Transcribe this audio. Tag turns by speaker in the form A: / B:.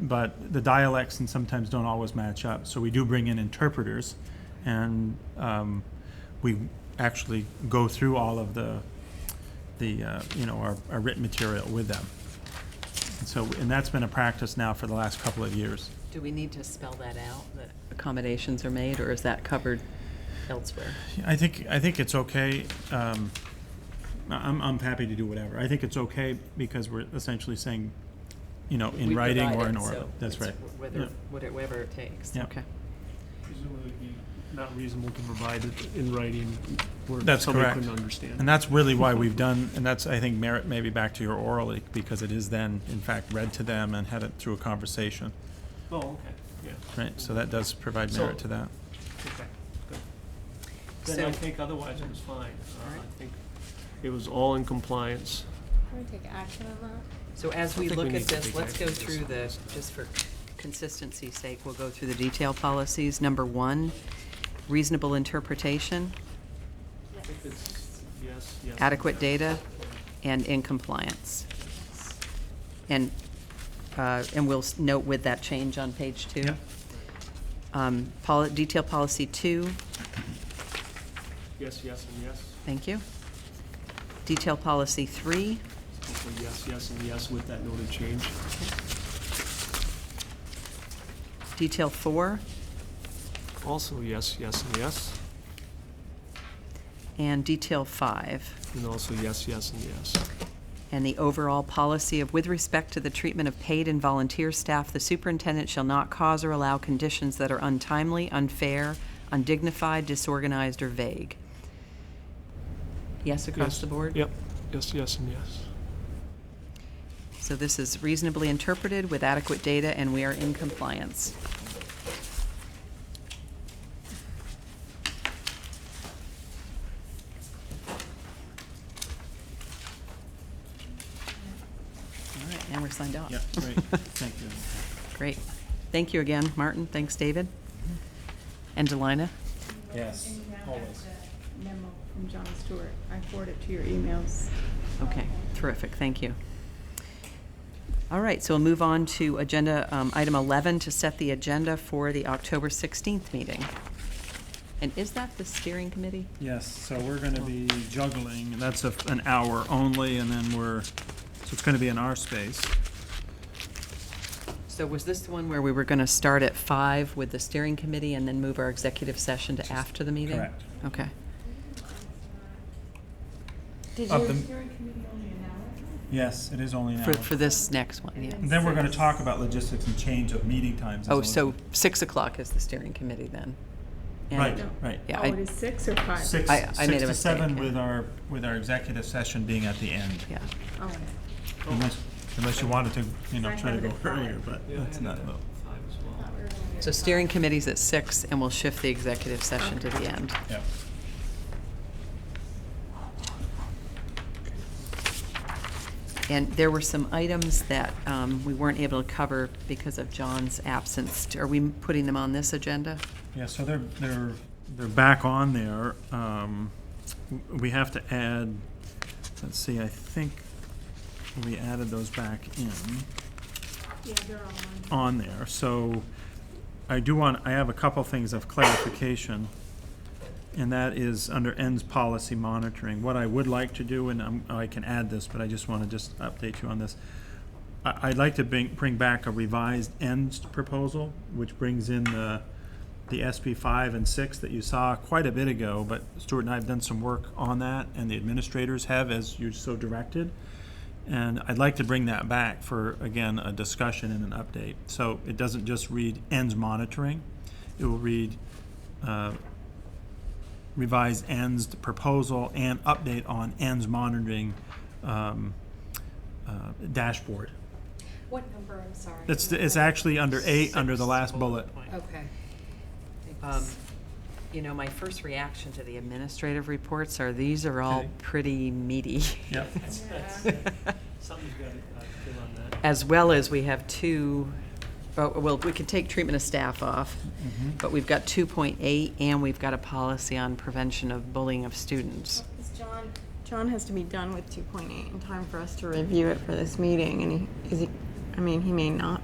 A: but the dialects and sometimes don't always match up. So we do bring in interpreters, and um, we actually go through all of the the uh, you know our, our written material with them. And so, and that's been a practice now for the last couple of years.
B: Do we need to spell that out, that accommodations are made, or is that covered elsewhere?
A: I think, I think it's okay. um, I- I'm, I'm happy to do whatever. I think it's okay because we're essentially saying, you know, in
B: We
A: writing
B: provide
A: or in
B: it,
A: oral.
B: so
A: That's
B: it's
A: right.
B: wh-
A: Yeah.
B: Whether, whate- whatever it takes.
A: Yeah.
B: Okay.
C: Presumably it'd be not reasonable to provide it in writing where
A: That's
C: somebody
A: correct.
C: couldn't understand.
A: And that's really why we've done, and that's, I think, merit maybe back to your orally, because it is then, in fact, read to them and had it through a conversation,
C: Oh, okay, yeah,
A: right? So that does provide
C: So-
A: merit to that.
C: okay, good. Then I
B: So-
C: think otherwise it was fine. Uh,
B: Alright.
C: I think it was all in compliance.
D: Can we take action on that?
B: So as we
C: think we
B: look
C: need
B: at
C: to
B: this,
C: take
B: let's go
C: action on
B: through the,
C: this.
B: just for consistency's sake, we'll go through the detail policies. Number one, reasonable interpretation,
C: I think it's yes, yes.
B: adequate
C: yes.
B: data, and in compliance. And, uh, and we'll s- note with that change on page two. Um, poli- Detail policy two,
C: Yes, yes, and yes.
B: Thank you. Detail policy three,
C: Hopefully yes, yes, and yes with that noted change.
B: detail four,
C: Also yes, yes, and yes,
B: and detail five.
C: and also yes, yes, and yes.
B: And the overall policy of with respect to the treatment of paid and volunteer staff, the superintendent shall not cause or allow conditions that are untimely, unfair, undignified, disorganized, or vague. Yes across
C: Yes,
B: the board?
C: Yep, yes, yes, and yes.
B: So this is reasonably interpreted with adequate data, and we are in compliance. All right, and we're signed off.
A: Yeah, great, thank you.
B: Great. Thank you again, Martin. Thanks, David. And Delina.
A: Yes, always.
E: memo from John Stewart. I forward it to your emails.
B: Okay, terrific, thank you. All right, so we'll move on to agenda, um, item 11, to set the agenda for the October 16th meeting. And is that the steering committee?
A: Yes, so we're gonna be juggling, and that's a, an hour only, and then we're, so it's gonna be in our space.
B: So was this the one where we were going to start at 5 with the steering committee and then move our executive session to after the meeting?
A: correct.
B: Okay.
D: Did
A: Of
D: you?
A: the- Yes, it is only an
B: For,
A: hour.
B: for this next one, yeah.
A: And Then we're gonna talk about logistics and change of meeting times. as
B: Oh,
A: well as-
B: so 6 o'clock is the steering committee then? And-
A: Right,
E: No.
A: right.
B: Yeah,
E: Oh,
B: I-
E: it is six or five?
A: Six,
B: I- I
A: six
B: made a
A: to seven
B: mistake, yeah.
A: with our, with our executive session being at the end.
B: Yeah,
E: Oh,
A: Unless, unless you wanted to, you know,
E: I
A: try to
E: have
A: go
E: it at five.
A: earlier, but that's not, no.
C: Five as well.
B: so steering committee's at 6 and we'll shift the executive session to the end.
A: yeah.
B: And there were some items that um, we weren't able to cover because of John's absence. Are we putting them on this agenda?
A: Yeah, so they're, they're, they're back on there. Um, w- we have to add, let's see, I think we added those back in
E: Yeah, they're all
A: on there. So I do want, I have a couple things of clarification. And that is under ends policy monitoring. What I would like to do, and I'm- I can add this, but I just want to just update you on this. I, I'd like to bring, bring back a revised ends proposal, which brings in the, the SB five and six that you saw quite a bit ago, but Stuart and I have done some work on that, and the administrators have, as you so directed. And I'd like to bring that back for, again, a discussion and an update. So it doesn't just read ends monitoring, it will read uh, revised ends proposal and update on ends monitoring um, uh, dashboard.
D: What number, I'm sorry?
A: It's, it's actually under eight, under the last
B: Six.
A: bullet.
D: Okay.
A: Uh,
B: Um, You know, my first reaction to the administrative reports are, these are all
A: Okay.
B: pretty meaty.
A: Yep.
C: Something's got to uh, give on that.
B: As well as we have two, oh, well, we can take treatment of staff off,
A: Mm-hmm.
B: but we've got 2.8 and we've got a policy on prevention of bullying of students.
E: Because John, John has to be done with two point eight in time for us to review it for this meeting, and he, is he, I mean, he may not